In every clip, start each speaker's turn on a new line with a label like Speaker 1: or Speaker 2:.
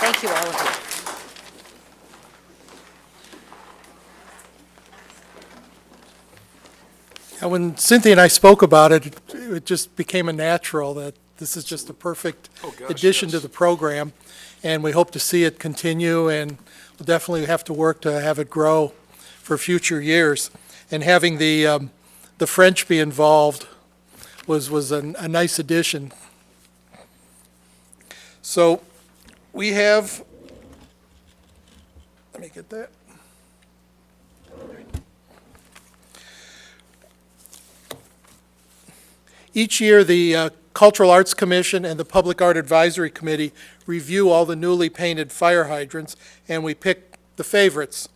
Speaker 1: Thank you, all of you.
Speaker 2: And When Cynthia and I spoke about it, it just became a natural that this is just a perfect
Speaker 3: Oh, gosh,
Speaker 2: addition to
Speaker 3: yes.
Speaker 2: the program, and we hope to see it continue, and we'll definitely have to work to have it grow for future years. And having the, um, the French be involved was, was a, a nice addition. So, we have, let me get that. Each year, the uh, Cultural Arts Commission and the Public Art Advisory Committee review all the newly painted fire hydrants, and we pick the favorites.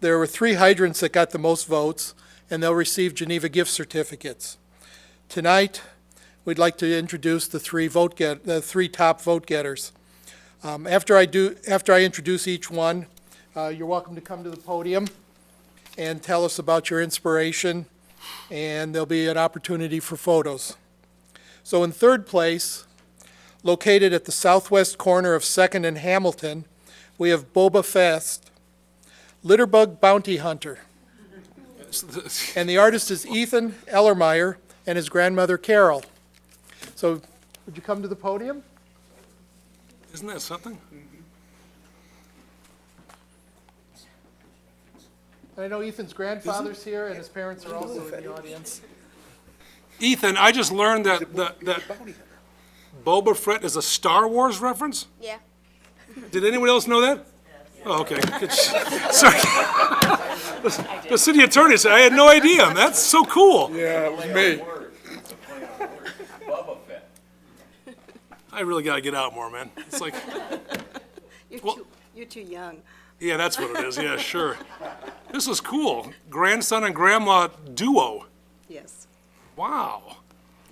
Speaker 2: There were three hydrants that got the most votes, and they'll receive Geneva gift certificates. Tonight, we'd like to introduce the three vote get, the three top vote getters. Um, After I do, after I introduce each one, uh, you're welcome to come to the podium and tell us about your inspiration, and there'll be an opportunity for photos. So in third place, located at the southwest corner of Second and Hamilton, we have Boba Fest, Litterbug Bounty Hunter. And the artist is Ethan Ellermeyer and his grandmother Carol. So would you come to the podium?
Speaker 3: Isn't that something?
Speaker 2: And I know Ethan's grandfather's here and his parents are also in the audience.
Speaker 3: Ethan, I just learned that, that that Boba Fett is a Star Wars reference?
Speaker 4: Yeah.
Speaker 3: Did anyone else know that? Oh, okay. Good sh- Sorry. The- The city attorney said, I had no idea. That's so cool.
Speaker 5: Yeah, it was me.
Speaker 3: I really gotta get out more, man. It's like,
Speaker 6: You're
Speaker 3: Well-
Speaker 6: too, you're too young.
Speaker 3: yeah, that's what it is. Yeah, sure. This is cool. Grandson and grandma duo.
Speaker 6: Yes.
Speaker 3: Wow.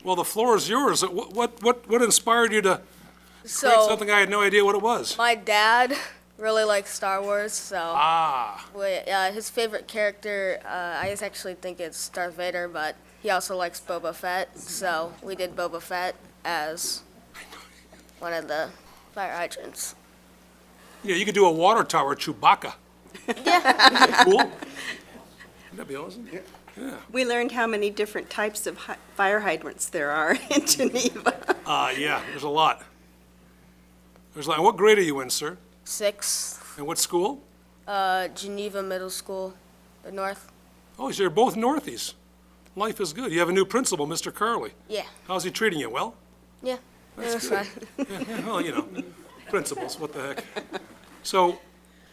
Speaker 3: Well, the floor is yours. What, what, what what inspired you to create
Speaker 4: So
Speaker 3: something I had no idea what it was?
Speaker 4: my dad really likes Star Wars, so
Speaker 3: Ah,
Speaker 4: wait, uh, his favorite character, uh, I just actually think it's Darth Vader, but he also likes Boba Fett, so we did Boba Fett as one of the fire hydrants.
Speaker 3: yeah, you could do a water tower Chewbacca. Yeah. Cool. Wouldn't that be awesome?
Speaker 6: We learned how many different types of hy- fire hydrants there are in Geneva.
Speaker 3: Ah, yeah, there's a lot. There's like, what grade are you in, sir?
Speaker 4: Sixth,
Speaker 3: And what school?
Speaker 4: uh, Geneva Middle School, the North.
Speaker 3: Oh, so you're both Northies. Life is good. You have a new principal, Mr. Carley.
Speaker 4: Yeah,
Speaker 3: How's he treating you? Well?
Speaker 4: yeah. That's
Speaker 3: good. Yeah, well, you know, principals, what the heck. So,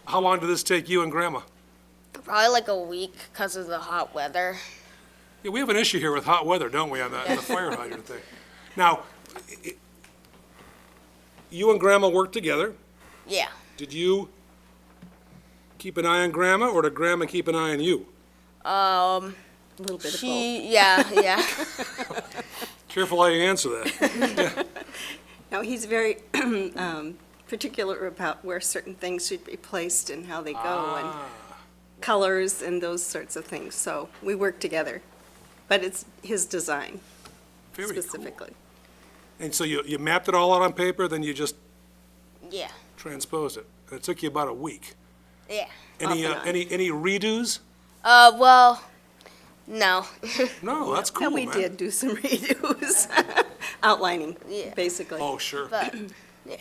Speaker 3: how long did this take you and Grandma?
Speaker 4: Probably like a week because of the hot weather.
Speaker 3: Yeah, we have an issue here with hot weather, don't we, on the, on the fire hydrant thing? Now, i- i- you and Grandma worked together.
Speaker 4: Yeah.
Speaker 3: Did you keep an eye on Grandma, or did Grandma keep an eye on you?
Speaker 6: A little bit of both.
Speaker 4: She, yeah, yeah.
Speaker 3: Careful how you answer that.
Speaker 6: Now, he's very um, particular about where certain things should be placed and how they go and colors and those sorts of things. So we work together. But it's his design
Speaker 3: Very cool.
Speaker 6: specifically.
Speaker 3: And so you, you mapped it all out on paper, then you just
Speaker 4: yeah,
Speaker 3: transposed it. And It took you about a week.
Speaker 4: yeah.
Speaker 3: Any,
Speaker 6: Off
Speaker 3: uh,
Speaker 6: and on.
Speaker 3: any, any redos?
Speaker 4: Uh, well, no.
Speaker 3: No, that's cool,
Speaker 6: And we
Speaker 3: man.
Speaker 6: did do some redos, outlining,
Speaker 4: Yeah.
Speaker 6: basically.
Speaker 3: Oh, sure.
Speaker 4: But, yeah,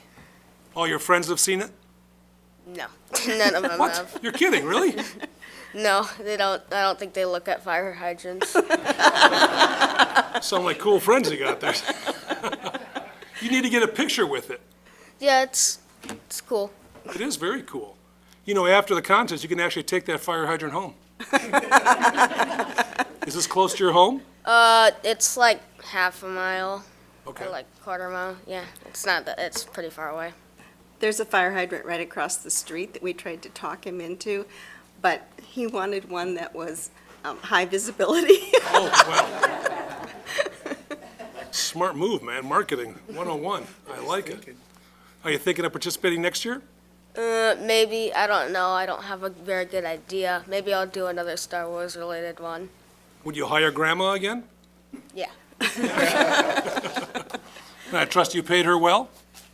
Speaker 3: All your friends have seen it?
Speaker 4: no. None of them have.
Speaker 3: What? You're kidding, really?
Speaker 4: No, they don't. I don't think they look at fire hydrants.
Speaker 3: Sound like cool friends you got there. You need to get a picture with it.
Speaker 4: yeah, it's it's cool.
Speaker 3: It is very cool. You know, after the contest, you can actually take that fire hydrant home. Is this close to your home?
Speaker 4: Uh, it's like half a mile
Speaker 3: Okay.
Speaker 4: or like quarter mile. Yeah, it's not that. It's pretty far away.
Speaker 6: There's a fire hydrant right across the street that we tried to talk him into, but he wanted one that was um, high visibility.
Speaker 3: Oh, wow. Smart move, man. Marketing 101. I like it. Are you thinking of participating next year?
Speaker 4: Uh, maybe I don't know. I don't have a very good idea. Maybe I'll do another Star Wars related one.
Speaker 3: Would you hire grandma again?
Speaker 4: Yeah.
Speaker 3: And I trust you paid her well?